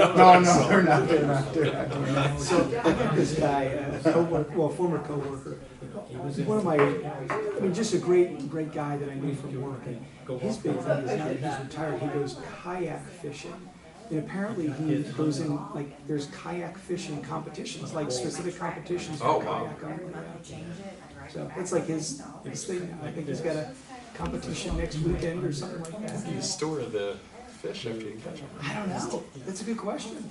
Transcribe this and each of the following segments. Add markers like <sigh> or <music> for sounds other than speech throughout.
No, no, they're not, they're not, they're not doing that. So- I got this guy, a coworker, well, former coworker, one of my, I mean, just a great, great guy that I knew from work. And his big thing is now that he's retired, he goes kayak fishing. And apparently he goes in, like, there's kayak fishing competitions, like specific competitions Oh, for wow. kayak only. yeah. So that's like his, his thing. now. I think he's got a competition next weekend or something like that. You store the fish after you catch them. I don't know. That's a good question.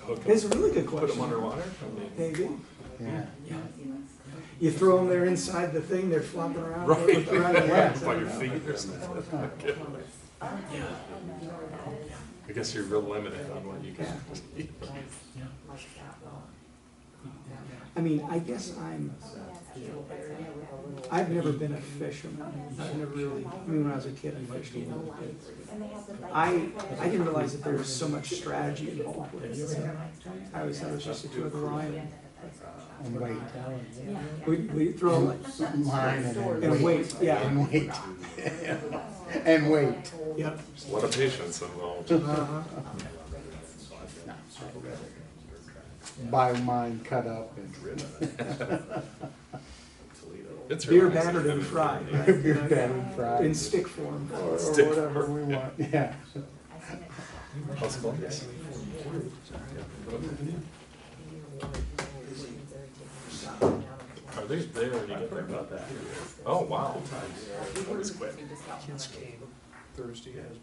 Hook 'em. It's a really good Put them question. underwater? I mean, Maybe. Yeah. You throw them there inside the thing, they're flopping around. Right. around <laughs> the net. By your feet or something. <laughs> Okay. I guess you're real limited on what you can. I mean, I guess I'm, I've never been a fisherman. I've never really, I mean, when I was a kid, I fished a little bit. I, I didn't realize that there was so much strategy involved with it. So I always thought it was just a two of the line. And wait. We, we throw like, Line and then and wait, yeah, And wait. <laughs> And wait. yep. There's A lot of patience involved. Uh-huh. Buy mine cut up and It's Beer really nice. battered and fried, right? beer battered fried. In stick form. Or or whatever we want, <laughs> yeah. How's it going? Yes. <laughs> Are they there? You get there about that? Oh, wow. That was quick. Kids came Thursday as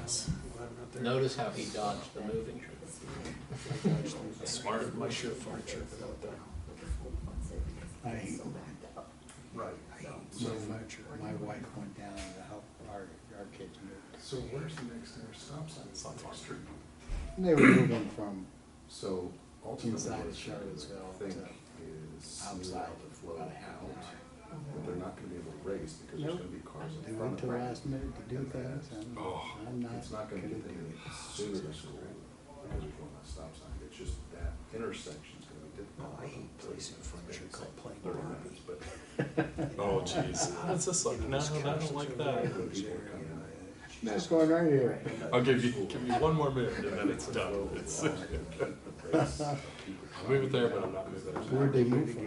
Nice. Notice how he dodged the moving truck. Smart. My shirt furniture without that. I hate Right. so much. My wife went down to help our, our kids move. So where's the next stop sign? Sunflower Street. And They were moving from So Inside ultimately, of what you Charlottesville think is outside, allow the flow about a half an out, hour. but they're not gonna be able to race because there's Nope. gonna be cars They in went to front of them. last minute to do things and Oh, I'm not It's not gonna gonna do get any it. sooner to school because we're going to stop sign, it's just that intersection's gonna be difficult. Oh, I hate placing furniture called playing Thirty Barbie. minutes, <laughs> but <laughs> Oh, jeez. What's this like? No, I don't like that. when people are coming in. That's going right here. I'll give you, give you one more minute <laughs> and then it's done. It's- <laughs> <laughs> I'll move it there, but I'm not moving it. Where'd they move from?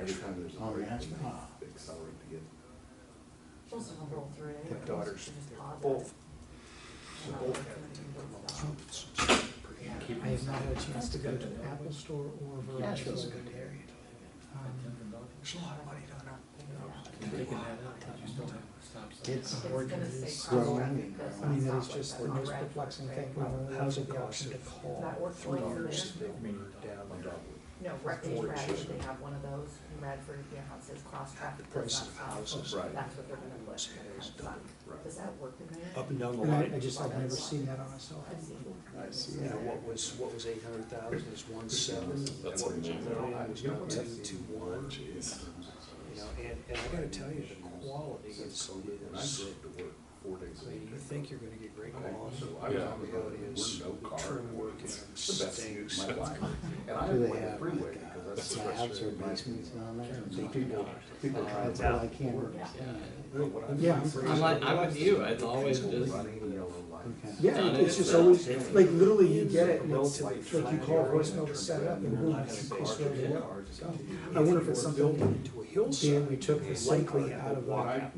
Every time there's a Oh, break, that's- they accelerate to get. The daughters, they're both, both have trumpets. I have not had a chance to go to the Apple Store or Verizon. Um, Nashville's a good area. There's a lot of money down there. It's It's growing and I mean, growing. that is just the most perplexing thing. When we How's have it the cost option to to call call, three years, they were down there. No, Refuge Radford, they have one of those in Radford, you know, how it says cross The traffic. does price not of stop. houses Right. That's what they're gonna put. in the truck. Does that work in there? up and down the and I, line. I just, I've never seen that on a cell phone. I've seen it. I see You know, that. what was, what was eight hundred thousand is one seven. That's amazing. It was one two, two Oh, one, jeez. you know, and, and I gotta tell you, the quality is, Since is, COVID, and I drove to work four days I a mean, week. you think you're gonna get great Okay, quality. so I was Yeah. on the road, Reality we're is, no the car. trim work It's and the best thing stinks. of my life. And I Do they went have freeway like, because uh, that's so slabs or frustrating. basements down there? Uh, So people, people drive That's what around. I can't Yeah. understand. What I'm Yeah. afraid I'm like, of I'm with you, it's is always people just, Running yellow lights. Okay. Yeah, it's just always, like, literally you get it and it's like, like you call voicemail to set it up and boom, it's it's ready to go. I wonder if it's something, Into a Dan, we hillside, took the likely out of, uh, uh,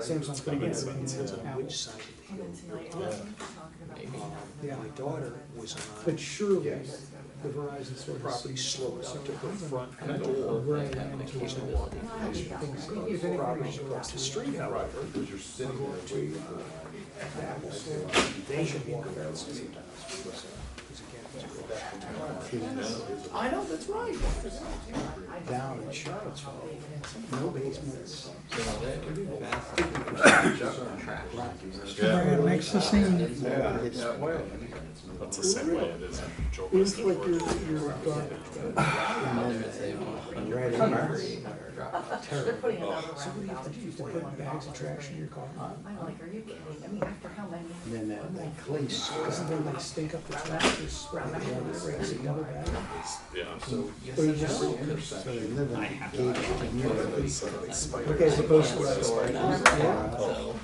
Samsung thing. and Apple. which side of the And hill. then tonight, I'm talking about Maybe. picking up Yeah. My daughter was on, But surely, Yes. the Verizon store. has seen- property slowed up to her front I don't know door. if Right. they have an There's no account. walking. Maybe if Properties anything, across the street, Right, however, because you're sitting there waiting for the light. they should walk around sometimes. Because again, it's a I know, that's right. Down in Charlottesville, no basements. So that- that's- Just on track. Right. Yeah. Make It's the same. Yeah, It's- that way. That's the same way it is in Joe It's West at like work. your, your uh, dog. Right in there. They're putting Oh, another round So what do you have to out. do? You have to put bags of trash in your car? I'm like, are you kidding? I mean, after how many? Oh And then that, that clay soil. Because then they stink up the trash, they spread it down, it brings another bag. Yeah. Or you just, So they live in a gated community. It's like spider. okay, but those, So,